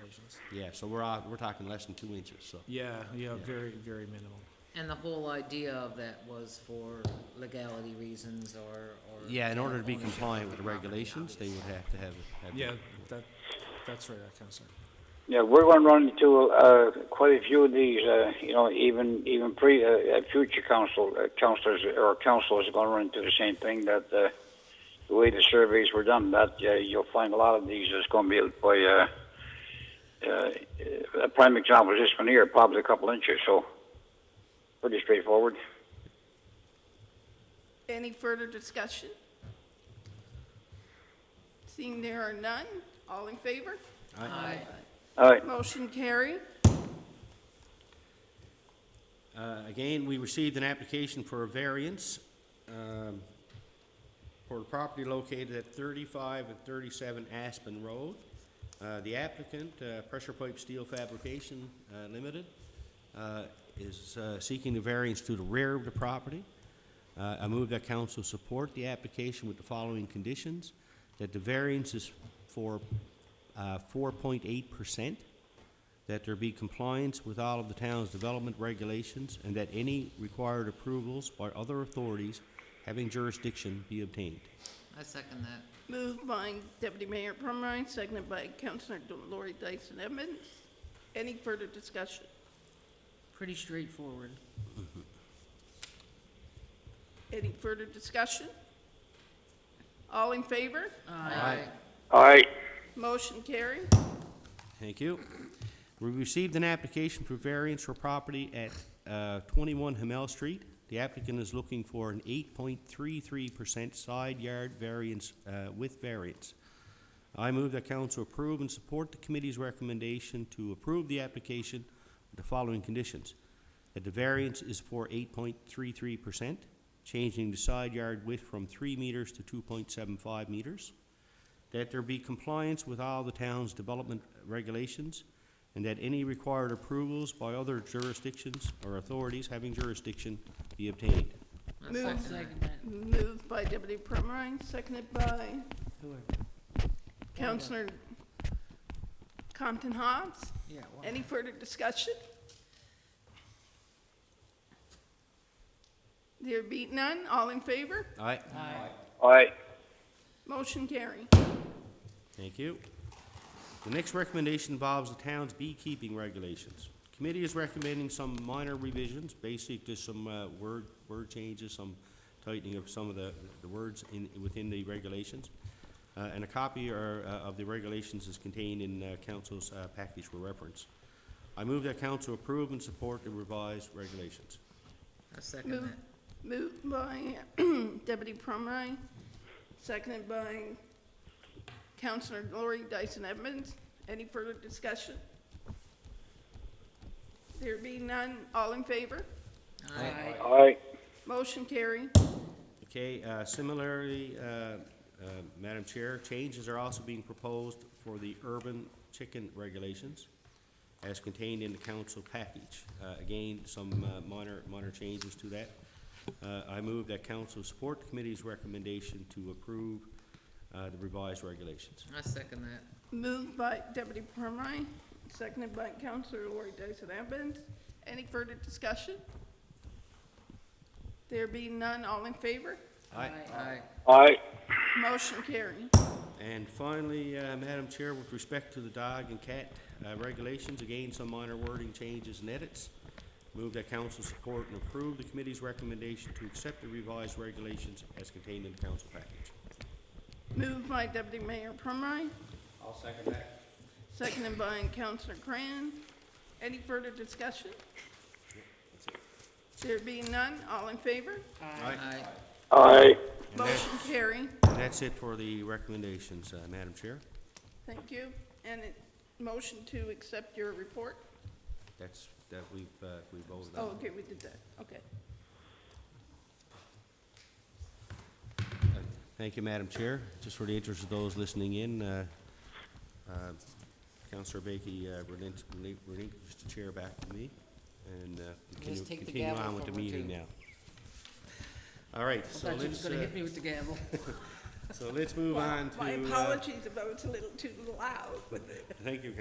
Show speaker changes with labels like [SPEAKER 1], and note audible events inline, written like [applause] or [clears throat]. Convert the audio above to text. [SPEAKER 1] sections.
[SPEAKER 2] Yeah, so we're, uh, we're talking less than two inches, so.
[SPEAKER 1] Yeah, yeah, very, very minimal.
[SPEAKER 3] And the whole idea of that was for legality reasons or, or.
[SPEAKER 2] Yeah, in order to be
[SPEAKER 3] ownership of
[SPEAKER 2] compliant with the
[SPEAKER 3] property,
[SPEAKER 2] regulations, they would
[SPEAKER 3] obviously.
[SPEAKER 2] have to have. it- have it-
[SPEAKER 1] Yeah, that, that's right, I Counselor.
[SPEAKER 4] Yeah, we're going to run into uh, quite a few of these. Uh, you know, even even pre uh, uh, future council uh, councilors or councils are going to run into the same thing. That uh, the way the surveys were done, that uh, you'll find a lot of these is going to be by. Uh, uh, a prime example is this one here, probably a couple inches, so pretty straightforward.
[SPEAKER 5] Any further discussion? Seeing there are none, all in favor?
[SPEAKER 3] Aye.
[SPEAKER 4] All right.
[SPEAKER 5] Motion carried.
[SPEAKER 2] Uh, Again, we received an application for a variance um, for the property located at 35 and 37 Aspen Road. Uh, The applicant, uh, Pressure Pipe Steel Fabrication uh, Limited, uh, is uh, seeking the variance to the rear of the property. Uh, I move that council support the application with the following conditions, that the variance is for uh, 4.8%, that there be compliance with all of the town's development regulations, and that any required approvals by other authorities having jurisdiction be obtained.
[SPEAKER 3] I second that.
[SPEAKER 5] Moved by Deputy Mayor Perma, seconded by Councilor Lori Dyson Edmonds. Any further discussion?
[SPEAKER 3] Pretty straightforward.
[SPEAKER 5] Any further discussion? All in favor?
[SPEAKER 3] Aye.
[SPEAKER 4] All right.
[SPEAKER 5] Motion carried.
[SPEAKER 2] Thank you. We received an application for variance for property at uh, 21 Hamel Street. The applicant is looking for an 8.33% side yard variance uh, with variance. I move that council approve and support the committee's recommendation to approve the application with the following conditions. That the variance is for 8.33%, changing the side yard width from 3 meters to 2.75 meters that there be compliance with all the town's development regulations, and that any required approvals by other jurisdictions or authorities having jurisdiction be obtained.
[SPEAKER 3] I
[SPEAKER 5] Move.
[SPEAKER 3] second that.
[SPEAKER 5] Moved by Deputy Perma, seconded by Councilor Compton Hobbs.
[SPEAKER 3] Yeah, well,
[SPEAKER 5] Any further discussion? There be none, all in favor?
[SPEAKER 2] Aye.
[SPEAKER 4] All right.
[SPEAKER 5] Motion carry.
[SPEAKER 2] Thank you. The next recommendation involves the town's beekeeping regulations. Committee is recommending some minor revisions, basically just some uh, word, word changes, some tightening of some of the, the words in, within the regulations. Uh, And a copy or, uh, of the regulations is contained in uh, council's uh, package for reference. I move that council approve and support the revised regulations.
[SPEAKER 3] I second
[SPEAKER 5] Move-
[SPEAKER 3] that.
[SPEAKER 5] Moved by [clears throat] Deputy Perma, seconded by Councilor Lori Dyson Edmonds. Any further discussion? There be none, all in favor?
[SPEAKER 3] Aye.
[SPEAKER 4] All right.
[SPEAKER 5] Motion carry.
[SPEAKER 2] Okay, uh, similarly, uh, uh, Madam Chair, changes are also being proposed for the urban chicken regulations as contained in the council package. Uh, Again, some uh, minor, minor changes to that. Uh, I move that council support the committee's recommendation to approve uh, the revised regulations.
[SPEAKER 3] I second that.
[SPEAKER 5] Moved by Deputy Perma, seconded by Councilor Lori Dyson Evans. Any further discussion? There be none, all in favor?
[SPEAKER 3] Aye.
[SPEAKER 4] All right.
[SPEAKER 5] Motion carried.
[SPEAKER 2] And finally, uh, Madam Chair, with respect to the dog and cat uh, regulations, again, some minor wording changes and edits. Move that council support and approve the committee's recommendation to accept the revised regulations as contained in the council package.
[SPEAKER 5] Moved by Deputy Mayor Perma. I'll second that. Seconded by Councilor Cran. Any further discussion? There be none, all in favor?
[SPEAKER 3] Aye.
[SPEAKER 4] All
[SPEAKER 2] And
[SPEAKER 4] right.
[SPEAKER 2] that-
[SPEAKER 5] Motion carried.
[SPEAKER 2] and that's it for the recommendations, uh, Madam Chair.
[SPEAKER 5] Thank you. And it, motion to accept your report?
[SPEAKER 2] That's, that we've, uh, we voted
[SPEAKER 5] Oh,
[SPEAKER 2] on.
[SPEAKER 5] okay, we did that, okay.
[SPEAKER 2] Uh, Thank you, Madam Chair. Just for the interest of those listening in, uh, uh, Councilor Bakie uh, relin- relin- relinquished the chair back to me, and uh, continue
[SPEAKER 3] take the
[SPEAKER 2] continue
[SPEAKER 3] gavel
[SPEAKER 2] on with the
[SPEAKER 3] from her,
[SPEAKER 2] meeting
[SPEAKER 3] too.
[SPEAKER 2] now. All right,
[SPEAKER 3] I
[SPEAKER 2] so
[SPEAKER 3] thought you was
[SPEAKER 2] let's,
[SPEAKER 3] gonna
[SPEAKER 2] uh,
[SPEAKER 3] hit me with the gavel.
[SPEAKER 2] so let's move on to...
[SPEAKER 5] My
[SPEAKER 2] uh,
[SPEAKER 5] apologies if I was a little too loud with it.
[SPEAKER 2] Thank you,